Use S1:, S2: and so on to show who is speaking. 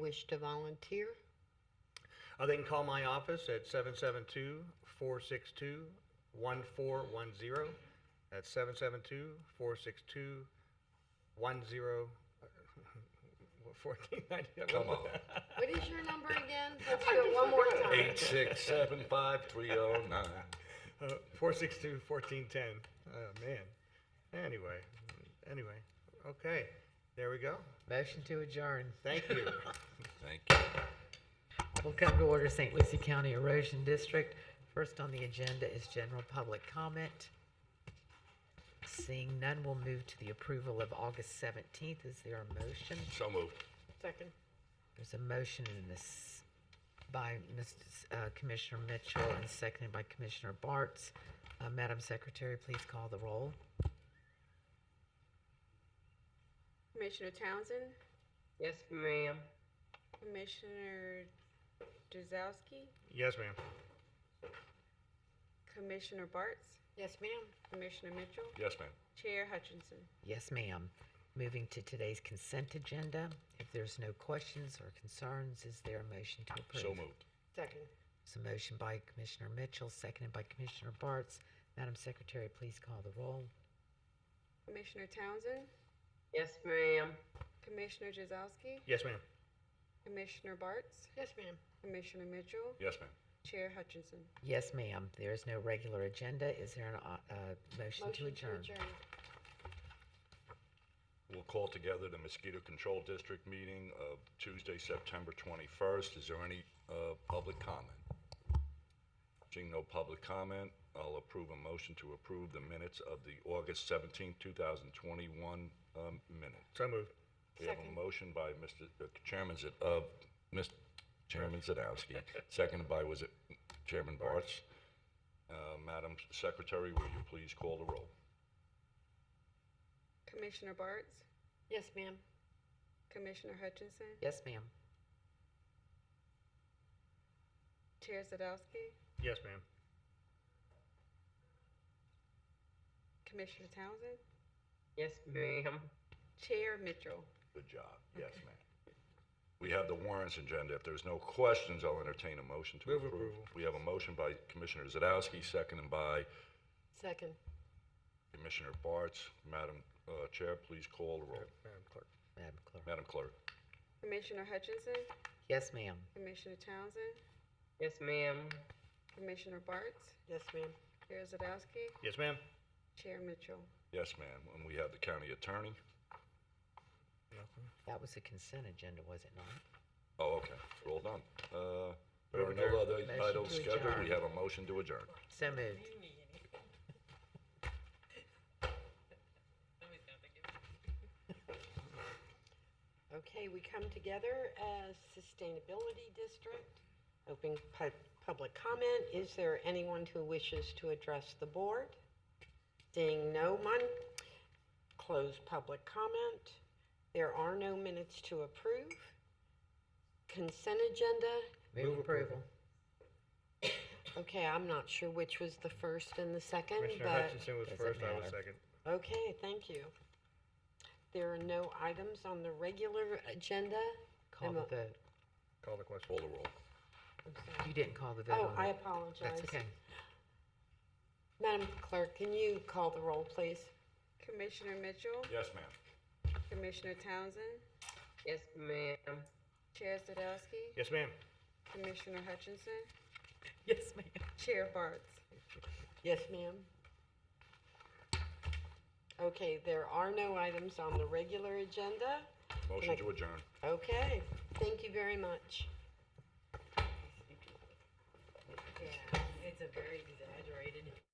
S1: wish to volunteer?
S2: Uh, they can call my office at 772 462 1410. That's 772 462 uh, 1490.
S3: Come on.
S1: What is your number again? Let's do it one more time.
S3: Eight six seven five three oh nine.
S2: Uh, 462 1410. Oh, man. Anyway, anyway. Okay. There we go.
S4: Motion to adjourn.
S2: Thank you.
S3: Thank you.
S4: We'll come to order St. Lucie County Erosion District. First on the agenda is general public comment. Seeing none, we'll move to the approval of August 17th. Is there a motion?
S3: So moved.
S1: Second.
S4: There's a motion in this by Mr. S- uh, Commissioner Mitchell and seconded by Commissioner Bartz. Uh, Madam Secretary, please call the roll.
S5: Commissioner Townsend,
S6: Yes, ma'am.
S5: Commissioner Dazowski,
S2: yes, ma'am.
S5: Commissioner Bartz,
S1: Yes, ma'am.
S5: Commissioner Mitchell,
S3: Yes, ma'am.
S5: Chair Hutchinson.
S4: Yes, ma'am. Moving to today's consent agenda. If there's no questions or concerns, is there a motion to approve?
S3: So moved.
S1: Second.
S4: It's a motion by Commissioner Mitchell, seconded by Commissioner Bartz. Madam Secretary, please call the roll.
S5: Commissioner Townsend,
S6: Yes, ma'am.
S5: Commissioner Dazowski,
S2: Yes, ma'am.
S5: Commissioner Bartz,
S1: Yes, ma'am.
S5: Commissioner Mitchell,
S3: Yes, ma'am.
S5: Chair Hutchinson.
S4: Yes, ma'am. There is no regular agenda. Is there an, uh, uh, motion to adjourn?
S3: We'll call together the mosquito control district meeting of Tuesday, September 21st. Is there any uh, public comment? Seeing no public comment, I'll approve a motion to approve the minutes of the August 17, 2021 um, minutes.
S2: So moved.
S3: We have a motion by Mr. uh, Chairman Zit, uh, Mr. Chairman Zadowski, seconded by, was it Chairman Bartz? Uh, Madam Secretary, will you please call the roll?
S5: Commissioner Bartz,
S1: Yes, ma'am.
S5: Commissioner Hutchinson,
S4: Yes, ma'am.
S5: Chair Zadowski,
S2: Yes, ma'am.
S5: Commissioner Townsend,
S6: Yes, ma'am.
S5: Chair Mitchell.
S3: Good job. Yes, ma'am. We have the warrants agenda. If there's no questions, I'll entertain a motion to
S2: Move
S3: approve.
S2: approval.
S3: We have a motion by Commissioner Zadowski, seconded by
S1: Second.
S3: Commissioner Bartz. Madam uh, Chair, please call the roll.
S2: Madam Clerk.
S4: Madam Clerk.
S3: Madam Clerk.
S5: Commissioner Hutchinson,
S4: Yes, ma'am.
S5: Commissioner Townsend,
S6: Yes, ma'am.
S5: Commissioner Bartz,
S1: Yes, ma'am.
S5: Chair Zadowski,
S2: Yes, ma'am.
S5: Chair Mitchell.
S3: Yes, ma'am. And we have the county attorney.
S4: That was a consent agenda, was it not?
S3: Oh, okay, we're all done. Uh, There
S2: Move
S3: are
S2: adjourn.
S3: no other
S4: Motion
S3: items
S4: to
S3: scheduled, we
S4: adjourn.
S3: have a motion to adjourn.
S4: So moved.
S1: Okay, we come together as Sustainability District. Open pu- public comment. Is there anyone who wishes to address the board? Seeing no one, close public comment. There are no minutes to approve. Consent agenda.
S4: Move approval.
S1: Okay, I'm not sure which was the first and the second,
S2: Commissioner
S1: but,
S2: Hutchinson was
S4: Doesn't
S2: first, I was
S4: matter.
S2: second.
S1: okay, thank you. There are no items on the regular agenda.
S4: Call the
S1: Emma-
S4: vote.
S2: Call the question.
S3: Call the roll.
S1: I'm sorry.
S4: You didn't call the vote
S1: Oh,
S4: on
S1: I
S4: it.
S1: apologize.
S4: That's okay.
S1: Madam Clerk, can you call the roll, please?
S5: Commissioner Mitchell,
S3: Yes, ma'am.
S5: Commissioner Townsend,
S6: Yes, ma'am.
S5: Chair Zadowski,
S2: Yes, ma'am.
S5: Commissioner Hutchinson,
S4: Yes, ma'am.
S5: Chair Bartz.
S1: Yes, ma'am. Okay, there are no items on the regular agenda.
S3: Motion
S1: Like-
S3: to adjourn.
S1: Okay, thank you very much.
S7: Yeah, it's a very exaggerated